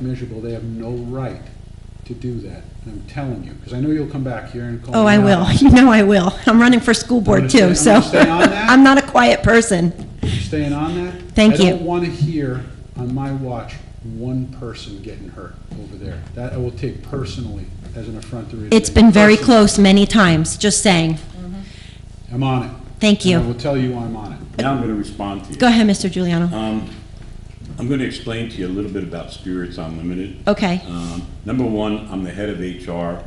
miserable, they have no right to do that. And I'm telling you, because I know you'll come back here and call me Oh, I out. will. You know I will. I'm running for school board gonna too, stay- I'm so. gonna stay on that. I'm not a quiet person. You Staying on that? Thank I don't you. want to hear on my watch one person getting hurt over there. That I will take personally as an affront to. It's been very Personally. close many times, just saying. I'm on it. Thank And I will you. tell you I'm on it. Now I'm going to respond to you. Go ahead, Mr. Giuliano. Um, I'm going to explain to you a little bit about Spirits Unlimited. Okay. Um, Number one, I'm the head of HR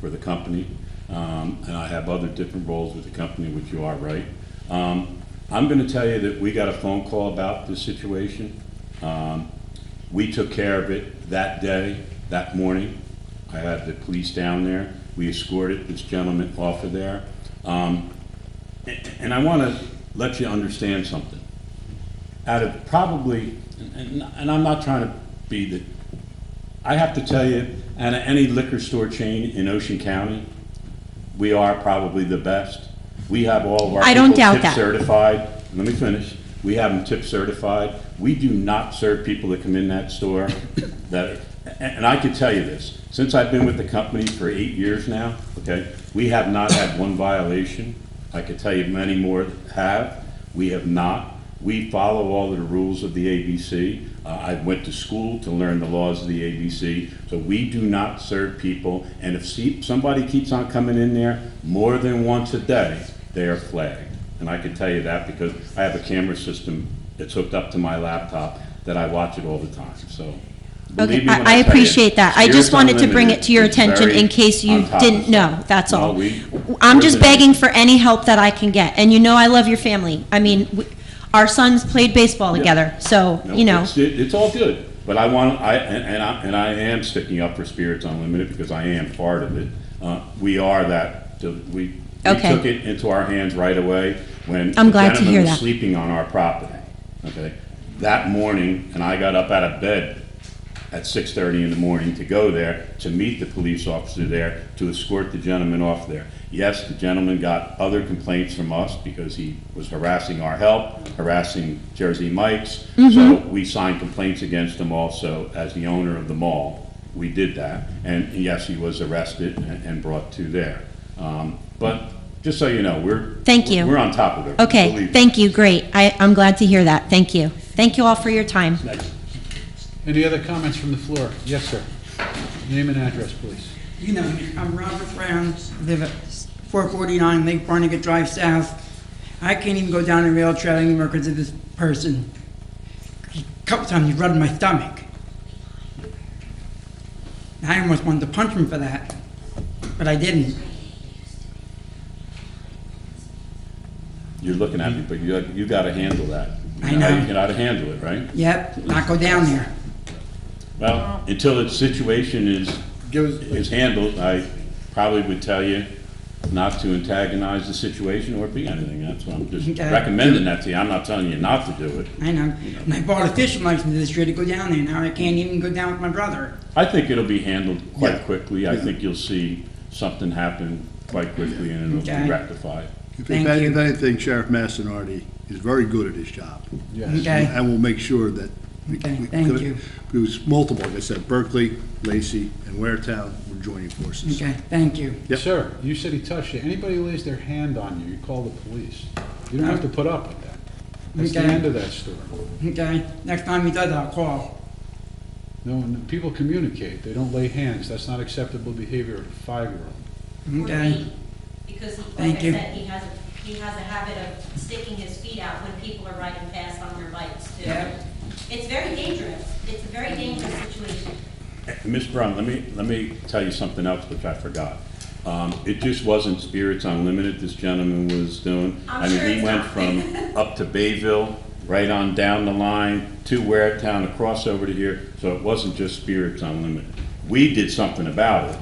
for the company, um, and I have other different roles with the company, which you are right. Um, I'm going to tell you that we got a phone call about this situation. Um, We took care of it that day, that morning. I had the police down there. We escorted this gentleman off of there. Um, a- And I want to let you understand something out of probably, and, and I'm not trying to be the, I have to tell you, out of any liquor store chain in Ocean County, we are probably the best. We have all of our I don't people doubt tip that. certified. Let me finish. We have them tip certified. We do not serve people that come in that store that, and, and I can tell you this, since I've been with the company for eight years now, okay, we have not had one violation. I could tell you many more have. We have not. We follow all of the rules of the ABC. Uh, I went to school to learn the laws of the ABC. So we do not serve people, and if see- somebody keeps on coming in there more than once a day, they are flagged. And I can tell you that because I have a camera system that's hooked up to my laptop that I watch it all the time, so. believe me I- when I tell you, appreciate that. I just Spirits wanted to bring Unlimited it to your is attention very in case you on top of didn't stuff. know, that's No, all. we- I'm we're just the- begging for any help that I can get, and you know I love your family. I mean, w- our sons played baseball together, so, No, you know. It's, it- it's all good, but I want, I, and and I, and I am sticking up for Spirits Unlimited because I am part of it. Uh, we are that, the- we, we Okay. took it into our hands right away when. I'm the glad to gentleman hear was that. Sleeping on our property, okay? That morning, and I got up out of bed at six thirty in the morning to go there, to meet the police officer there, to escort the gentleman off there. Yes, the gentleman got other complaints from us because he was harassing our help, harassing Jersey Mike's. Mm-hmm. So we signed complaints against him also as the owner of the mall. We did that. And yes, he was arrested and and brought to there. Um, But just so you know, we're. Thank you. We're on top of it. Okay, thank you, great. I, I'm glad to hear that, thank you. Thank you all for your time. you. Any other comments from the floor? Yes, sir. Name and address, please. You know, me. I'm Robert Brown, live at 449 Lake Barnegat Drive South. I can't even go down a rail trail anymore because of this person. A Couple times he rubbed my stomach. I almost wanted to punch him for that, but I didn't. You're looking at me, but you, you gotta handle that. I You how know. You gotta handle it, right? Yep, not go down there. Well, until the situation is, Give us- is handled, I probably would tell you not to antagonize the situation or be anything. That's why I'm just Okay. recommending that to you. I'm not telling you not to do it. I know. And I bought a fishing license this year to go down there. Now I can't even go down with my brother. I think it'll be handled Yeah. quite quickly. I think you'll see something happen quite quickly and it'll Okay. be rectified. If Thank any- if you. anything, Sheriff Mastinardi is very good at his job. Yes. Okay? And will make sure that. we- Okay, we- thank you. It was multiple, like I said, Berkeley, Lacey, and Waretown were joining forces. Okay, thank you. Yep. Sir, you said he touched you. Anybody who lays their hand on you, you call the police. You don't have to put up with that. That's the Okay. end of that story. Okay? Next time he does, I'll call. No, n- people communicate. They don't lay hands. That's not acceptable behavior of a five-year-old. or Okay? feet, Because, he- like Thank I you. said, he has, a- he has a habit of sticking his feet out when people are riding fast on their bikes, too. Yeah. It's very dangerous. It's a very dangerous situation. Ms. Brown, let me, let me tell you something else which I forgot. Um, It just wasn't Spirits Unlimited this gentleman was doing. I'm I mean, sure he it's went not. from up to Bayville, right on down the line to Ware Town, across over to here. So it wasn't just Spirits Unlimited. We did something about it.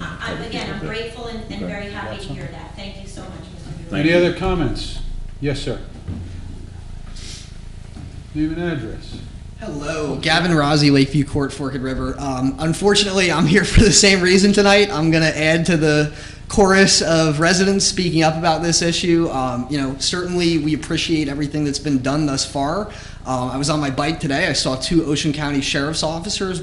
I- I'm, again, I'm grateful and and Okay. very happy to hear that. Thank you so much, Mr. Bureau. Thank Any you. other comments? Yes, sir. Name and address. Hello, Gavin Rossi, Lakeview Court, Forked River. Um, unfortunately, I'm here for the same reason tonight. I'm going to add to the chorus of residents speaking up about this issue. Um, you know, certainly we appreciate everything that's been done thus far. Um, I was on my bike today. I saw two Ocean County sheriff's officers